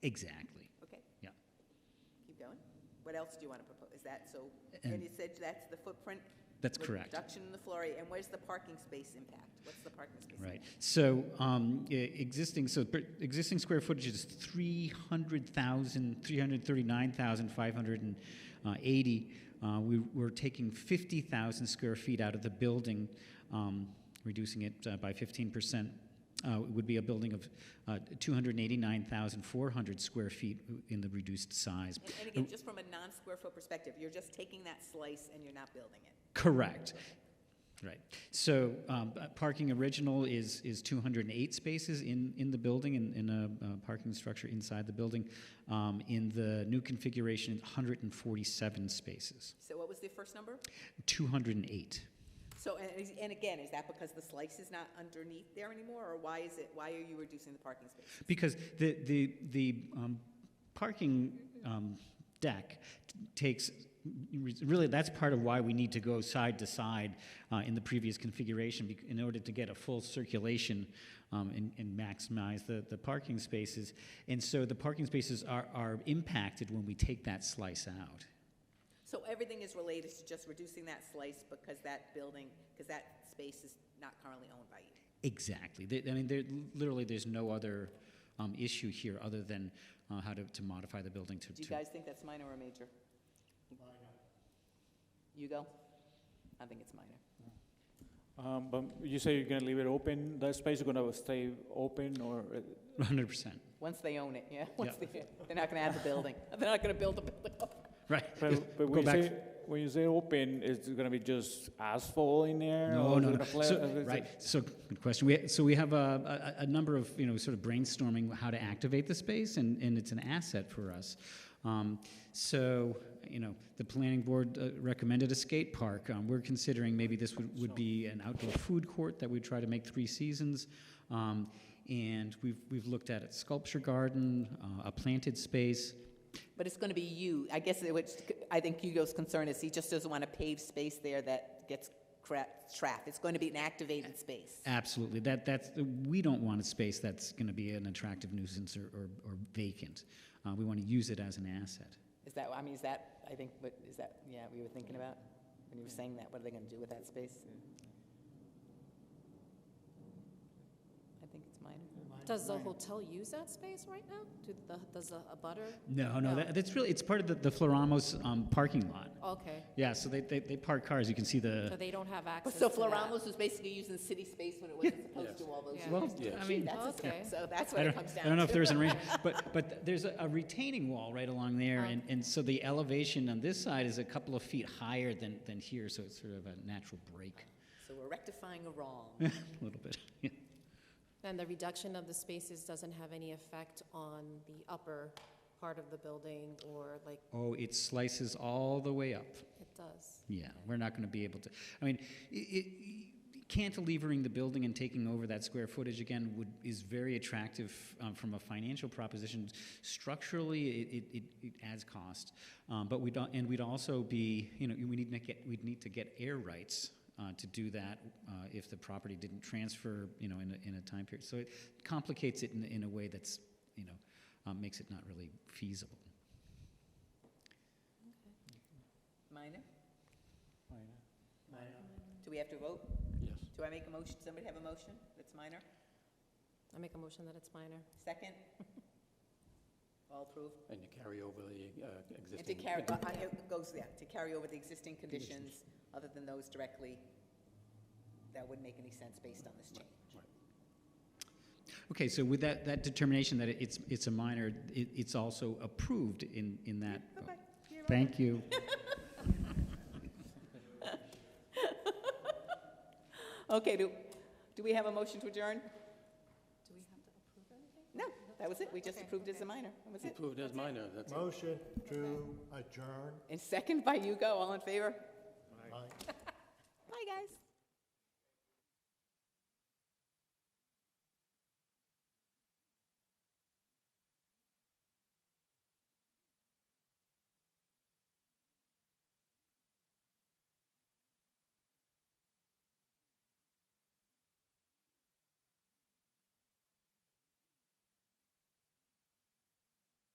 Exactly, Okay, yeah. keep going. What else do you want to propose? Is that, so, And- and you said that's the footprint? That's with correct. Reduction in the floor area, and where's the parking space impact? What's the parking space? Right. impact? So um, e- existing so per- existing square footage is 300,000 339,580. Uh, we, we're taking 50,000 square feet out of the building, um, reducing it uh, by 15%. Uh, it would be a building of uh, 289,400 square feet in the reduced size. And- And again, just from a non-square foot perspective, you're just taking that slice and you're not building it. Correct. Right. So um, uh, parking original is, is 208 spaces in, in the building, in, in a uh, parking structure inside the building. Um, in the new configuration, 147 spaces. So what was the first number? 208. So, and, is- and again, is that because the slice is not underneath there anymore, or why is it, why are you reducing the parking space? Because the, the, the um, parking um, deck t- takes, really, that's part of why we need to go side to side uh, in the previous configuration bec- in order to get a full circulation um, and, and maximize the, the parking spaces. And so the parking spaces are, are impacted when we take that slice out. So everything is related to just reducing that slice because that building, because that space is not currently owned by you. Exactly. There- I mean, there, literally, there's no other um, issue here other than uh, how to, to modify the building to, Do you to guys think that's minor or major? Minor. You go? I think it's minor. Um, but you say you're gonna leave it open, that space is gonna stay open or, uh, 100%. Once they own it, yeah? Once they- They're not gonna add the building. They're not gonna build the building up. Right. but, but Go when you back. say, when you say open, is it gonna be just asphalt in there? No, or uh, no, is it no. gonna fla- is So, it- right. So, good question. We, so we have a, a, a number of, you know, sort of brainstorming how to activate the space, and, and it's an asset for us. Um, so, you know, the planning board uh, recommended a skate park. Um, we're considering maybe this would, would be an outdoor food court that we try to make three seasons. Um, and we've, we've looked at a sculpture garden, uh, a planted space. But it's gonna be you, I guess, it- which, I think Hugo's concern is he just doesn't want a paved space there that gets cra- trapped. It's gonna be an activated space. Absolutely. That, that's, we don't want a space that's going to be an attractive nuisance or, or, or vacant. Uh, we want to use it as an asset. Is that, I mean, is that, I think, what, is that, yeah, we were thinking about? When you were saying that, what are they gonna do with that space? I think it's minor. Does the hotel use that space right now? Do the, does the a butter? No, no, No. that, that's really, it's part of the, the Floramos um, parking lot. Okay, Yeah, so they, they, they park cars. You can see so the. they don't have access to So that? Floramos was basically using city space when it wasn't supposed to all those Yeah. years. Well, Yeah. I mean, That's a- Okay. So that's I what don't, it comes I down to. don't know if there's an range, but, but there's a, a retaining wall right along there. Oh. And, and so the elevation on this side is a couple of feet higher than, than here, so it's sort of a natural break So we're rectifying a wrong. a little bit. Yeah. And the reduction of the spaces doesn't have any effect on the upper part of the building or like, Oh, it slices all the way up. it does? Yeah, we're not going to be able to. I mean, i it, cantilevering the building and taking over that square footage again would is very attractive um, from a financial proposition. Structurally, it, it, it, it adds cost, um, but we don't, and we'd also be, you know, we need to get we'd need to get air rights. Uh, to do that, uh, if the property didn't transfer, you know, in a, in a time period, so it complicates it in, in a way that's, you know, um, makes it not really feasible. Minor? Minor. Do we have to vote? Yes. Do I make a motion? Somebody have a motion that's minor? I make a motion that it's minor. Second? All approved? And to carry over the uh, existing. And to carry, uh, uh, it goes, yeah, to carry over the existing conditions other than those directly that wouldn't make any sense based on this change. Okay, so with that, that determination that it's, it's a minor, it, it's also approved in, in that. Okay. You're right. Thank you. Okay, do, do we have a motion to adjourn? Do we have to approve anything? No, that was it. We just Okay, approved it as a okay. minor. That was it. Approved as minor, that's it. Motion to adjourn. And second by Hugo, all in favor? Aye.